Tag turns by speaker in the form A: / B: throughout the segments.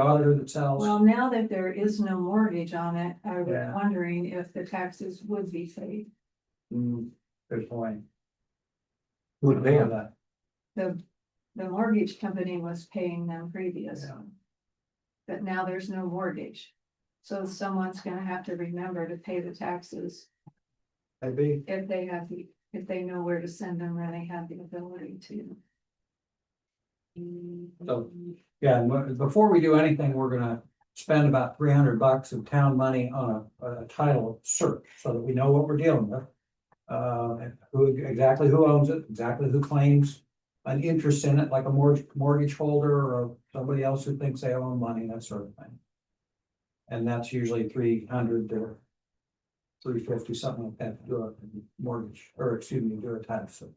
A: daughter that sells.
B: Well, now that there is no mortgage on it, I was
A: Yeah.
B: wondering if the taxes would be paid.
A: Hmm, good point. Who'd pay on that?
B: The, the mortgage company was paying them previous.
A: Yeah.
B: But now there's no mortgage. So someone's gonna have to remember to pay the taxes
A: That'd be,
B: if they have the, if they know where to send them or they have the ability to.
A: So- yeah, and what- before we do anything, we're gonna spend about three hundred bucks of town money on a, a title search, so that we know what we're dealing with. Uh, and who, exactly who owns it, exactly who claims an interest in it, like a mortgage, mortgage holder or somebody else who thinks they own money, that sort of thing. And that's usually three hundred or three fifty, something like that, to do a mortgage, or excuse me, do a title search.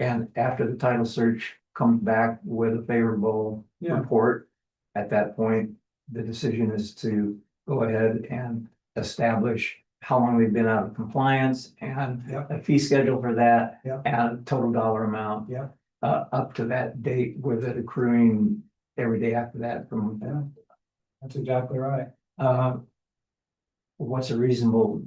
C: And after the title search comes back with a favorable
A: Yeah.
C: report, at that point, the decision is to go ahead and establish how long we've been out of compliance and
A: Yep.
C: a fee schedule for that
A: Yep.
C: and total dollar amount.
A: Yep.
C: Uh, up to that date with it accruing every day after that from
A: Yeah, that's exactly right.
C: Uh, What's a reasonable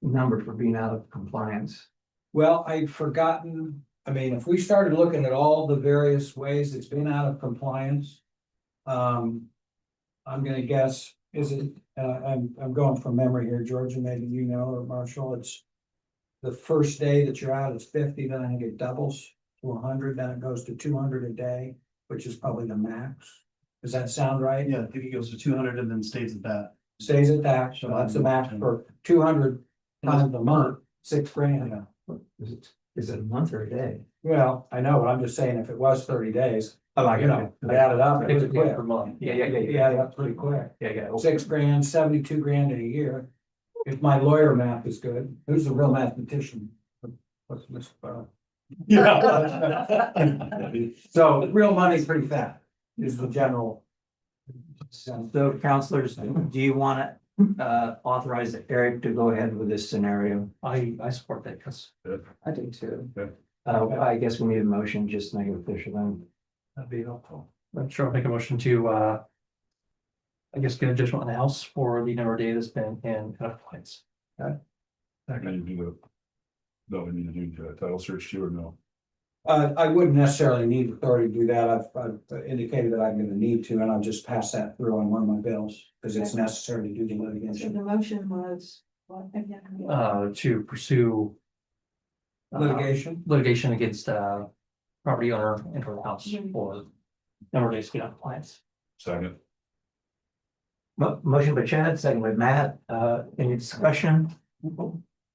C: number for being out of compliance?
A: Well, I'd forgotten, I mean, if we started looking at all the various ways it's been out of compliance. Um, I'm gonna guess, is it, uh, I'm, I'm going from memory here, Georgia, maybe you know, or Marshall, it's. The first day that you're out is fifty, then I think it doubles to hundred, then it goes to two hundred a day, which is probably the max. Does that sound right?
D: Yeah, I think it goes to two hundred and then stays at that.
A: Stays at that, so that's the max for two hundred times a month, six grand.
C: Is it, is it a month or a day?
A: Well, I know, but I'm just saying if it was thirty days, like, you know, Oh, I added up, it was quick.
C: month. Yeah, yeah, yeah.
A: Yeah, that's pretty quick.
C: Yeah, yeah. okay.
A: Six grand, seventy-two grand in a year. If my lawyer math is good, who's the real mathematician? What's Mr. Burrow? So real money's pretty fat, is the general.
C: So counselors, do you want to uh authorize Eric to go ahead with this scenario?
D: I, I support that, cause.
C: I do too.
D: Okay.
C: Uh, I guess we need a motion, just make it official then.
D: That'd be helpful. I'm sure I'll make a motion to, uh. I guess get a judgment on the house for the number of days that's been in kind of points.
E: Not gonna do the. No, we need to do the title search too or no?
A: Uh, I wouldn't necessarily need authority to do that. I've, I've indicated that I'm gonna need to, and I'll just pass that through on one of my bills. Cause it's necessary to do the
B: So
A: litigation,
B: the motion was, what, again?
D: Uh, to pursue. uh,
A: litigation.
D: Litigation against, uh, property owner and her house
A: Mm-hmm.
D: for number of days to get out of compliance.
E: Second,
C: Mo- motion by Chad, second by Matt, uh, any discussion?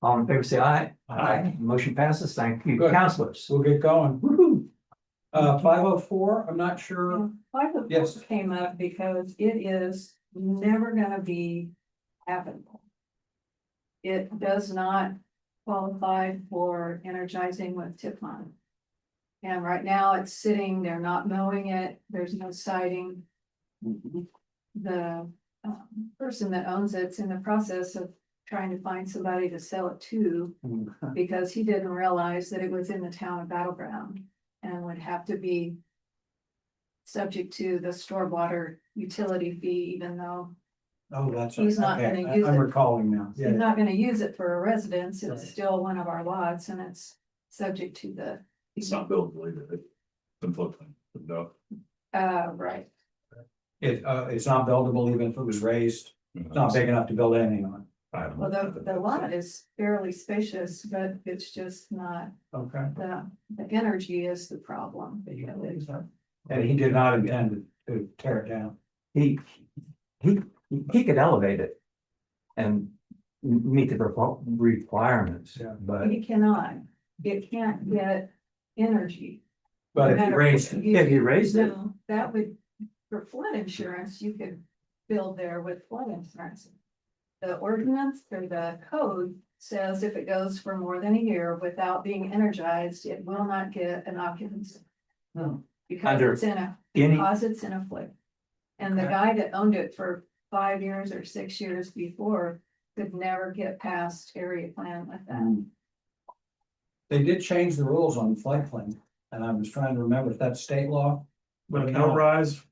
C: All in favor, say aye.
D: Aye.
C: Motion passes, thank you,
A: Good.
C: counselors.
A: We'll get going.
C: Woo-hoo.
A: Uh, five oh four, I'm not sure.
B: Why the
A: Yes.
B: book came up because it is never gonna be habitable. It does not qualify for energizing with tip on. And right now it's sitting, they're not mowing it, there's no siding. The um, person that owns it's in the process of trying to find somebody to sell it to because he didn't realize that it was in the town of Battleground and would have to be subject to the storm water utility fee, even though
A: Oh, that's.
B: He's not
A: okay.
B: gonna use
A: I- I'm
B: it.
A: recalling now.
B: he's not gonna use it for a residence,
A: Right.
B: it's still one of our lots and it's subject to the.
E: it's not built, believe it. It's in floodplain, but no.
B: Uh, right,
A: It, uh, it's not buildable even if it was raised. It's not
E: I
A: big enough to build anything on.
E: don't know.
B: well, the, the lot is fairly spacious, but it's just not,
A: Okay.
B: the, the energy is the problem. really.
A: And he did not intend to tear it down.
C: He, he, he could elevate it. And m- meet the requ- requirements,
A: Yeah.
C: but
B: It cannot, it can't get energy.
A: But if he raised it,
C: if you raised it,
B: No, That would, for flood insurance, you could build there with flood insurance. The ordinance or the code says if it goes for more than a year without being energized, it will not get an occupancy.
A: Hmm.
B: Because
C: Under-
B: it's in a,
C: any,
B: because it's in a flip. And the
A: Okay.
B: guy that owned it for five years or six years before could never get past area plan with that.
A: they did change the rules on floodplain. And I was trying to remember if that's state law
E: But no rise